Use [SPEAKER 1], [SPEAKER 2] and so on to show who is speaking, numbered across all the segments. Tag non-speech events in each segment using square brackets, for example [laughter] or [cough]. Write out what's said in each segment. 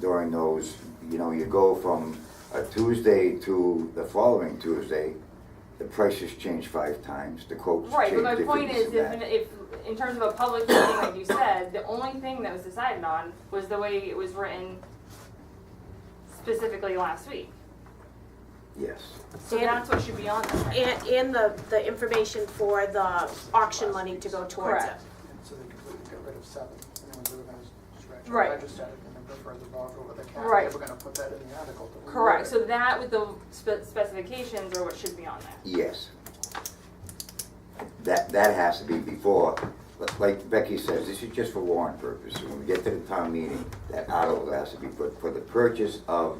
[SPEAKER 1] during those, you know, you go from a Tuesday to the following Tuesday, the prices change five times, the quotes change
[SPEAKER 2] Right, but my
[SPEAKER 1] if
[SPEAKER 2] point
[SPEAKER 1] it's
[SPEAKER 2] is, if,
[SPEAKER 1] that.
[SPEAKER 2] if, in terms of a public meeting, like you said, the only thing that was decided on was the way it was written specifically last week.
[SPEAKER 1] Yes,
[SPEAKER 2] So that's what should be on there. right?
[SPEAKER 3] And, and the, the information for the auction money to go towards it.
[SPEAKER 2] Correct.
[SPEAKER 4] And so they completely got rid of seven, and it was organized stretch.
[SPEAKER 2] Right.
[SPEAKER 4] I just added the number further above over the cap,
[SPEAKER 2] Right.
[SPEAKER 4] they were gonna put that in the article. that we
[SPEAKER 2] Correct, so
[SPEAKER 4] wrote.
[SPEAKER 2] that with the spe- specifications are what should be on there.
[SPEAKER 1] yes. That, that has to be before, li- like Becky says, this is just for warrant purposes. When we get to the town meeting, that article has to be put for the purchase of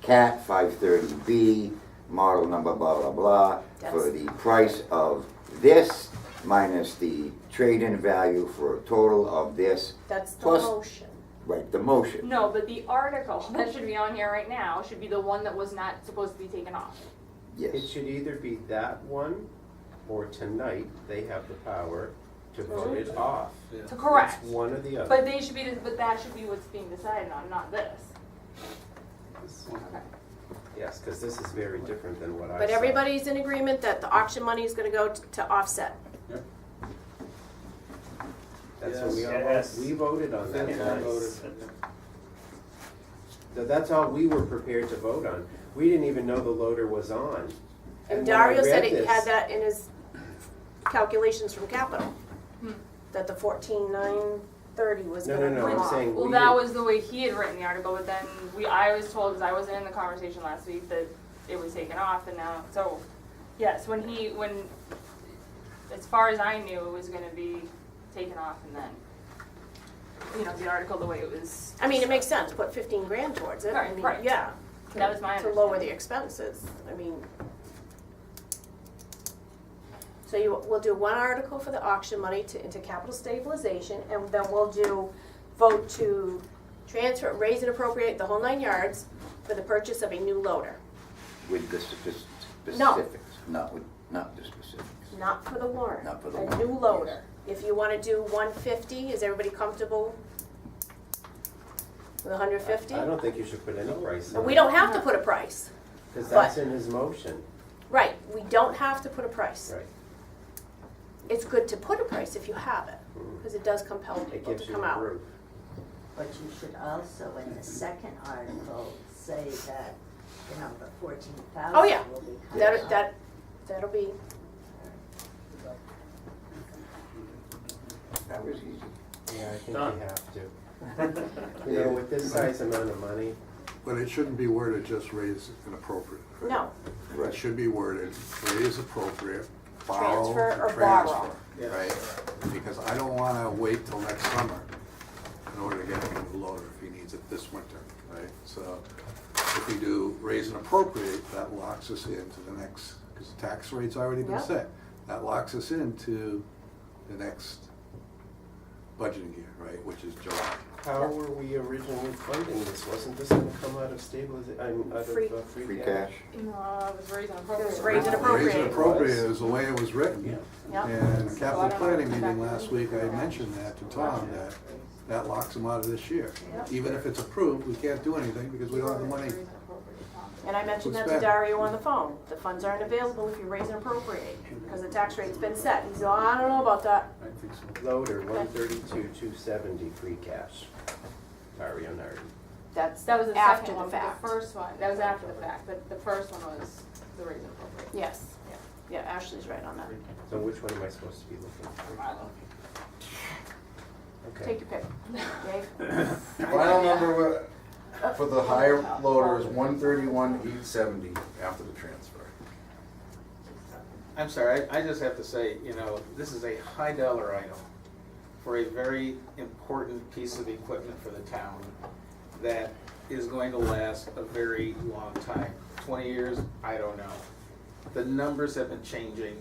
[SPEAKER 1] CAT five thirty B, model number blah, blah, blah, for
[SPEAKER 3] That's-
[SPEAKER 1] the price of this minus the trade-in value for a total of this,
[SPEAKER 3] That's the
[SPEAKER 1] Plus-
[SPEAKER 3] motion.
[SPEAKER 1] right, the motion.
[SPEAKER 2] No, but the article [laughs] that should be on here right now should be the one that was not supposed to be taken off.
[SPEAKER 5] It
[SPEAKER 1] Yes,
[SPEAKER 5] should either be that one, or tonight, they have the power to vote it off.
[SPEAKER 2] To correct,
[SPEAKER 5] It's one or the
[SPEAKER 2] but
[SPEAKER 5] other.
[SPEAKER 2] they should be, but that should be what's being decided on, not this.
[SPEAKER 5] Yes, because this is very different than what I saw.
[SPEAKER 3] But everybody's in agreement that the auction money is gonna go t- to offset.
[SPEAKER 5] That's what we all,
[SPEAKER 6] Yes.
[SPEAKER 5] vote- we voted on that
[SPEAKER 6] Yes.
[SPEAKER 5] tonight. So That's all we were prepared to vote on. We didn't even know the loader was on.
[SPEAKER 3] And
[SPEAKER 5] when I
[SPEAKER 3] Dario said
[SPEAKER 5] read
[SPEAKER 3] it had
[SPEAKER 5] this-
[SPEAKER 3] that in his calculations from capital,
[SPEAKER 2] Hmm.
[SPEAKER 3] that the fourteen nine thirty was
[SPEAKER 5] No,
[SPEAKER 3] gonna come
[SPEAKER 5] no, no, I'm
[SPEAKER 3] off.
[SPEAKER 5] saying
[SPEAKER 2] Well,
[SPEAKER 5] we
[SPEAKER 2] that
[SPEAKER 5] didn't-
[SPEAKER 2] was the way he had written the article, but then we, I was told, because I wasn't in the conversation last week, that it was taken off and now, so, yes, when he, when, as far as I knew, it was gonna be taken off and then, you know, the article, the way it was.
[SPEAKER 3] I mean, it makes sense, put fifteen grand towards it, I
[SPEAKER 2] Right,
[SPEAKER 3] mean,
[SPEAKER 2] right.
[SPEAKER 3] yeah. to-
[SPEAKER 2] That was my
[SPEAKER 3] To lower the
[SPEAKER 2] understanding.
[SPEAKER 3] expenses, I mean. So you, we'll do one article for the auction money to, into capital stabilization, and then we'll do vote to transfer, raise and appropriate the whole nine yards for the purchase of a new loader.
[SPEAKER 1] with the spec-
[SPEAKER 3] No.
[SPEAKER 1] specifics, not with, not the specifics.
[SPEAKER 3] Not for the warrant.
[SPEAKER 1] Not for the
[SPEAKER 3] A new
[SPEAKER 1] warrant,
[SPEAKER 3] loader. If you wanna do one fifty, is everybody comfortable? With hundred fifty?
[SPEAKER 5] I don't think you should put any price on it.
[SPEAKER 3] We don't have to put a price,
[SPEAKER 5] Because that's in his motion,
[SPEAKER 3] right, we don't have to put a price.
[SPEAKER 5] right?
[SPEAKER 3] It's good to put a price if you have it, because it does compel
[SPEAKER 5] Mm. It
[SPEAKER 3] people
[SPEAKER 5] gives
[SPEAKER 3] to
[SPEAKER 5] you
[SPEAKER 3] come
[SPEAKER 5] the
[SPEAKER 3] out.
[SPEAKER 5] roof.
[SPEAKER 7] But you should also, in the second article, say that, you know, the fourteen
[SPEAKER 3] Oh, yeah.
[SPEAKER 7] thousand will be cut
[SPEAKER 3] That,
[SPEAKER 7] off.
[SPEAKER 3] that, that'll be,
[SPEAKER 1] That was easy.
[SPEAKER 5] Yeah, I think
[SPEAKER 6] Done.
[SPEAKER 5] you have to.
[SPEAKER 3] [laughs]
[SPEAKER 5] You know, with this size amount of money,
[SPEAKER 8] But it shouldn't be worded just raise and appropriate.
[SPEAKER 3] no,
[SPEAKER 8] It should be worded raise appropriate, borrow
[SPEAKER 3] Transfer or
[SPEAKER 8] to transfer. Right? Because I don't wanna wait till next summer in order to get him a loader if he needs it this winter, right? So if we do raise and appropriate, that locks us into the next, because the tax rate's already been
[SPEAKER 3] Yep.
[SPEAKER 8] set. That locks us into the next budgeting year, right, which is July.
[SPEAKER 5] how were we originally funding this? Wasn't this gonna come out of stabilization, I mean, out of
[SPEAKER 3] Free-
[SPEAKER 5] uh, free
[SPEAKER 1] Free
[SPEAKER 5] cash?
[SPEAKER 1] cash,
[SPEAKER 2] No, it was raised on
[SPEAKER 3] It
[SPEAKER 2] appropriate.
[SPEAKER 3] was raised and
[SPEAKER 8] Raise
[SPEAKER 3] appropriate.
[SPEAKER 8] and appropriate is the way it was
[SPEAKER 5] Yeah.
[SPEAKER 8] written.
[SPEAKER 3] yeah.
[SPEAKER 8] And the
[SPEAKER 2] So I
[SPEAKER 8] capital
[SPEAKER 2] don't
[SPEAKER 8] planning
[SPEAKER 2] know if it's
[SPEAKER 8] meeting
[SPEAKER 2] back
[SPEAKER 8] last
[SPEAKER 2] then.
[SPEAKER 8] week, I mentioned that to Tom, that that locks them out of this year.
[SPEAKER 3] Yep.
[SPEAKER 8] Even if it's approved, we can't do anything because we don't have the money.
[SPEAKER 2] Raised and appropriate, Tom.
[SPEAKER 3] And I mentioned that
[SPEAKER 8] What's
[SPEAKER 3] to
[SPEAKER 8] that?
[SPEAKER 3] Dario on the phone, the funds aren't available if you raise and appropriate, because the tax rate's been set. He's, oh, I don't know about that,
[SPEAKER 5] Loader, one thirty-two, two seventy, free cash. Dario Nardi.
[SPEAKER 3] that's
[SPEAKER 2] That was the
[SPEAKER 3] after
[SPEAKER 2] second
[SPEAKER 3] the
[SPEAKER 2] one, but
[SPEAKER 3] fact.
[SPEAKER 2] the first one, that was after the fact, but the first one was the raised and appropriate.
[SPEAKER 3] Yes, yeah, Ashley's right on that.
[SPEAKER 5] So which one am I supposed to be looking for?
[SPEAKER 3] Take
[SPEAKER 5] Okay.
[SPEAKER 3] your pick. Dave?
[SPEAKER 5] [laughs]
[SPEAKER 9] Final number wa- for the higher loader is one thirty-one, eight seventy after the transfer.
[SPEAKER 6] I'm sorry, I, I just have to say, you know, this is a high dollar item for a very important piece of equipment for the town that is going to last a very long time. Twenty years, I don't know. The numbers have been changing.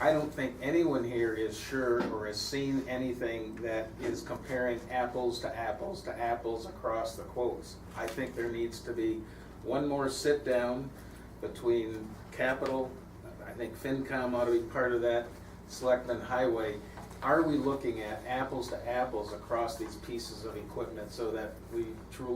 [SPEAKER 6] I don't think anyone here is sure or has seen anything that is comparing apples to apples to apples across the quotes. I think there needs to be one more sit-down between capital, I think FinCom ought to be part of that, Selectmen Highway. Are we looking at apples to apples across these pieces of equipment so that we truly